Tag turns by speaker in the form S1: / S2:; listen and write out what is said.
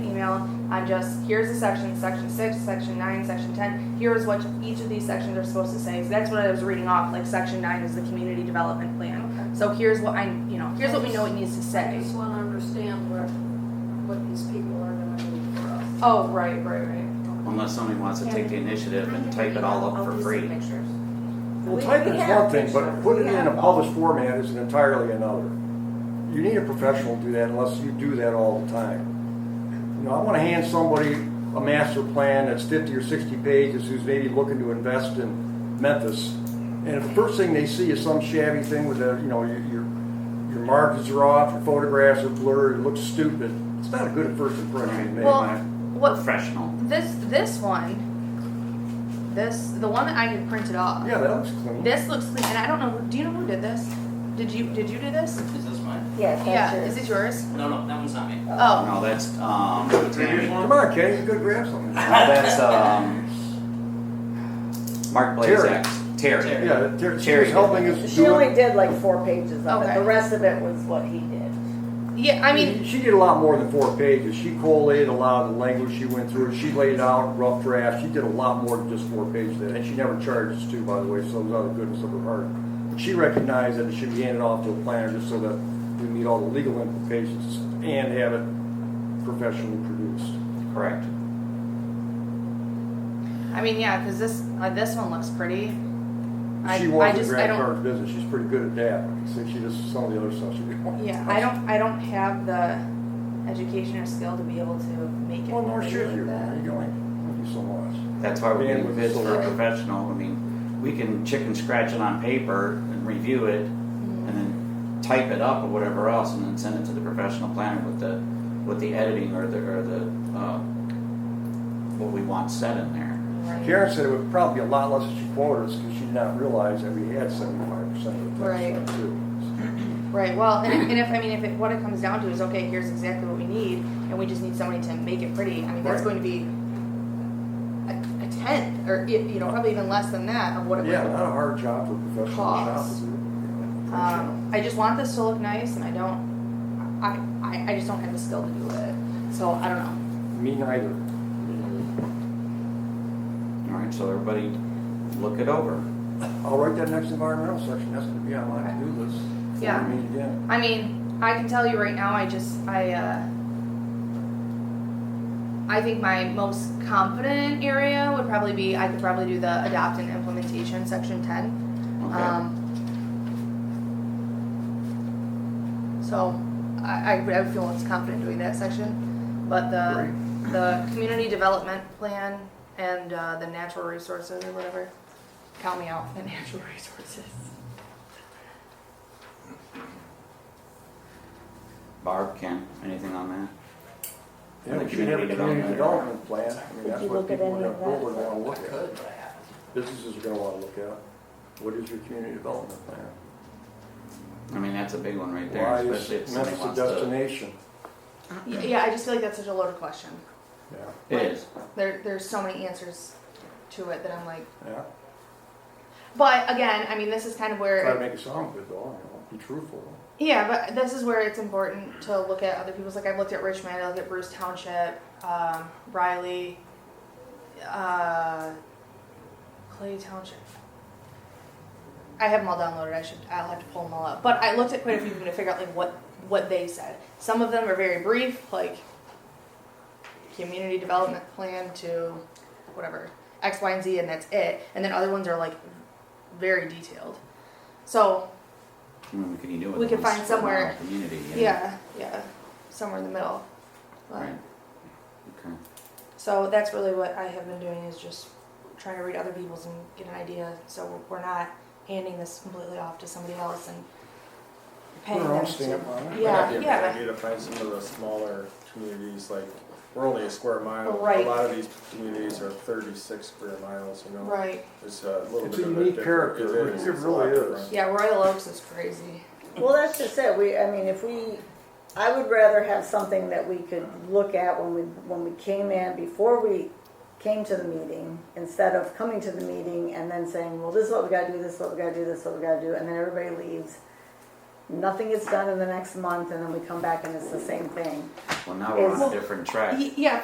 S1: email on just, here's the section, section six, section nine, section ten, here's what each of these sections are supposed to say. So that's what I was reading off, like section nine is the community development plan.
S2: Okay.
S1: So here's what I, you know, here's what we know it needs to
S2: I
S1: say.
S2: just wanna understand what, what these people are gonna do for us.
S1: Oh, right, right, right.
S3: Unless somebody wants to take the initiative and type it all up for free.
S4: Well,
S5: We-
S4: type
S5: we
S4: is
S5: have
S4: one thing, but
S5: pictures.
S4: put it
S5: We
S4: in a
S5: have-
S4: published format is entirely another. You need a professional to do that unless you do that all the time. You know, I wanna hand somebody a master plan that's fifty or sixty pages who's maybe looking to invest in Memphis. And if the first thing they see is some shabby thing with a, you know, your, your, your markings are off, your photographs are blurred, it looks stupid, it's not a good first impression to make.
S1: Well, what,
S3: Professional.
S1: this, this one, this, the one that I had printed off.
S4: Yeah, that looks clean.
S1: This looks clean, and I don't know, do you know who did this? Did you, did you do this?
S6: Is this mine?
S5: Yes,
S1: Yeah,
S5: that's
S1: is it
S5: yours.
S1: yours?
S6: No, no, that one's not me.
S1: Oh,
S3: No, that's, um, Tammy. No,
S4: Come on, Kenny, you could grab something.
S3: that's, um, Mark Blazak. Terry.
S6: Terry.
S4: Yeah, Ter- she
S3: Cherry.
S4: was helping us do it.
S5: She only did like four pages of it.
S1: Okay.
S5: The rest of it was what he did.
S1: yeah, I mean,
S4: she did a lot more than four pages. She collated a lot of the language she went through. She laid out rough drafts. She did a lot more than just four pages. Of that. And she never charged us too, by the way, so it was out of the goodness of her heart. But she recognized that it should be handed off to a planner just so that we meet all the legal implications and have it professionally produced.
S3: Correct.
S1: I mean, yeah, because this, uh, this one looks pretty. I,
S4: she
S1: I
S4: was in
S1: just, I
S4: grant
S1: don't,
S4: card business. She's pretty good at that. So she just some of the other stuff she did.
S1: yeah, I don't, I don't have the education or skill to be able to make it.
S4: Well, nor
S1: really
S4: should
S1: like
S4: you. Where are you
S1: that.
S4: going? Thank you so much.
S3: That's why we
S4: Man
S3: need
S4: with
S3: bids for a
S4: solar.
S3: professional. I mean, we can chicken scratch it on paper and review it and then type it up or whatever else and then send it to the professional planner with the, with the editing or the, or the, uh, what we want said in there.
S1: Mm-hmm.
S4: Karen said it would probably be a lot less if she quoted us because she did not realize that we had seventy-five percent of the tax
S1: Right.
S4: stuff too.
S1: Right, well, and if, and if, I mean, if it, what it comes down to is, okay, here's exactly what we need, and we just need somebody to make it pretty, I mean, that's going
S4: Right.
S1: to be a, a tenth, or, i- you know, probably even less than that of what it would.
S4: Yeah, not a hard job for a professional shop to
S1: Cost.
S4: do.
S1: Um, I just want this to look nice, and I don't, I, I, I just don't have the skill to do it, so I don't know.
S4: Me neither.
S3: All right, so everybody look it over.
S4: I'll write that next environmental section. That's gonna be on my to-do list. before
S1: Yeah.
S4: we Meet again.
S1: I mean, I can tell you right now, I just, I, uh, I think my most confident area would probably be, I could probably do the adopt and implementation, section ten.
S3: Okay.
S1: Um, so, I, I would- I would feel most confident doing that section, but the, the community development plan and, uh, the natural resources or whatever, count me out, the natural resources.
S3: Barb, Ken, anything on that?
S4: Yeah,
S3: The
S4: we should have a
S3: community
S4: community
S3: development.
S4: development plan. I mean,
S5: Did
S4: that's
S5: you
S4: what
S5: look at
S4: people are
S5: any
S4: gonna,
S5: of
S4: people are
S5: that?
S4: gonna
S6: I
S4: look at.
S6: could, but I haven't.
S4: Businesses are gonna wanna look at. What is your community development plan?
S3: I mean, that's a big one right there,
S4: Why is
S3: especially if somebody
S4: Memphis a
S3: wants to.
S4: destination?
S1: Yeah, Yeah, I just feel like that's such a loaded question.
S4: Yeah,
S3: It is.
S1: There, there's so many answers to it that I'm like,
S4: yeah.
S1: but again, I mean, this is kind of
S4: Try to
S1: where,
S4: make it sound good though, you know, be truthful.
S1: yeah, but this is where it's important to look at other people's. Like I've looked at Richmond, I looked at Bruce Township, um, Riley, uh, Clay Township. I have them all downloaded. I should, I'll have to pull them all up. But I looked at quite a few of them to figure out like what what they said. Some of them are very brief, like community development plan to whatever X, Y, and Z, and that's it. And then other ones are like very detailed. So
S3: I mean, what can you do with
S1: We
S3: it?
S1: could
S3: It's
S1: find
S3: for the whole
S1: somewhere-
S3: Community. you know?
S1: yeah, yeah, somewhere in the middle. But-
S3: Right. Okay.
S1: So that's really what I have been doing is just trying to read other people's and get an idea. So we're not handing this completely off to somebody else and
S4: Put
S1: paying
S4: our own
S1: them
S4: stamp
S1: to.
S4: on it.
S1: Yeah,
S7: Might be a
S1: yeah.
S7: good idea to find some of the smaller communities, like, we're only a square mile.
S1: Right.
S7: A lot of these communities are thirty-six square miles, you know?
S1: Right.
S7: It's a little
S4: It's
S7: bit
S4: a
S7: of a.
S4: unique
S7: different-
S4: character.
S7: It is,
S4: It
S7: it's a lot
S4: really
S7: different.
S4: is.
S1: Yeah, Royal Oaks is crazy.
S5: Well, that's just it. We, I mean, if we, I would rather have something that we could look at when we, when we came in, before we came to the meeting, instead of coming to the meeting and then saying, well, this is what we gotta do, this is what we gotta do, this is what we gotta do, and then everybody leaves. nothing is done in the next month, and then we come back and it's the same thing.
S3: Well, now we're on
S5: Well,
S3: a different track.
S1: Y- yeah,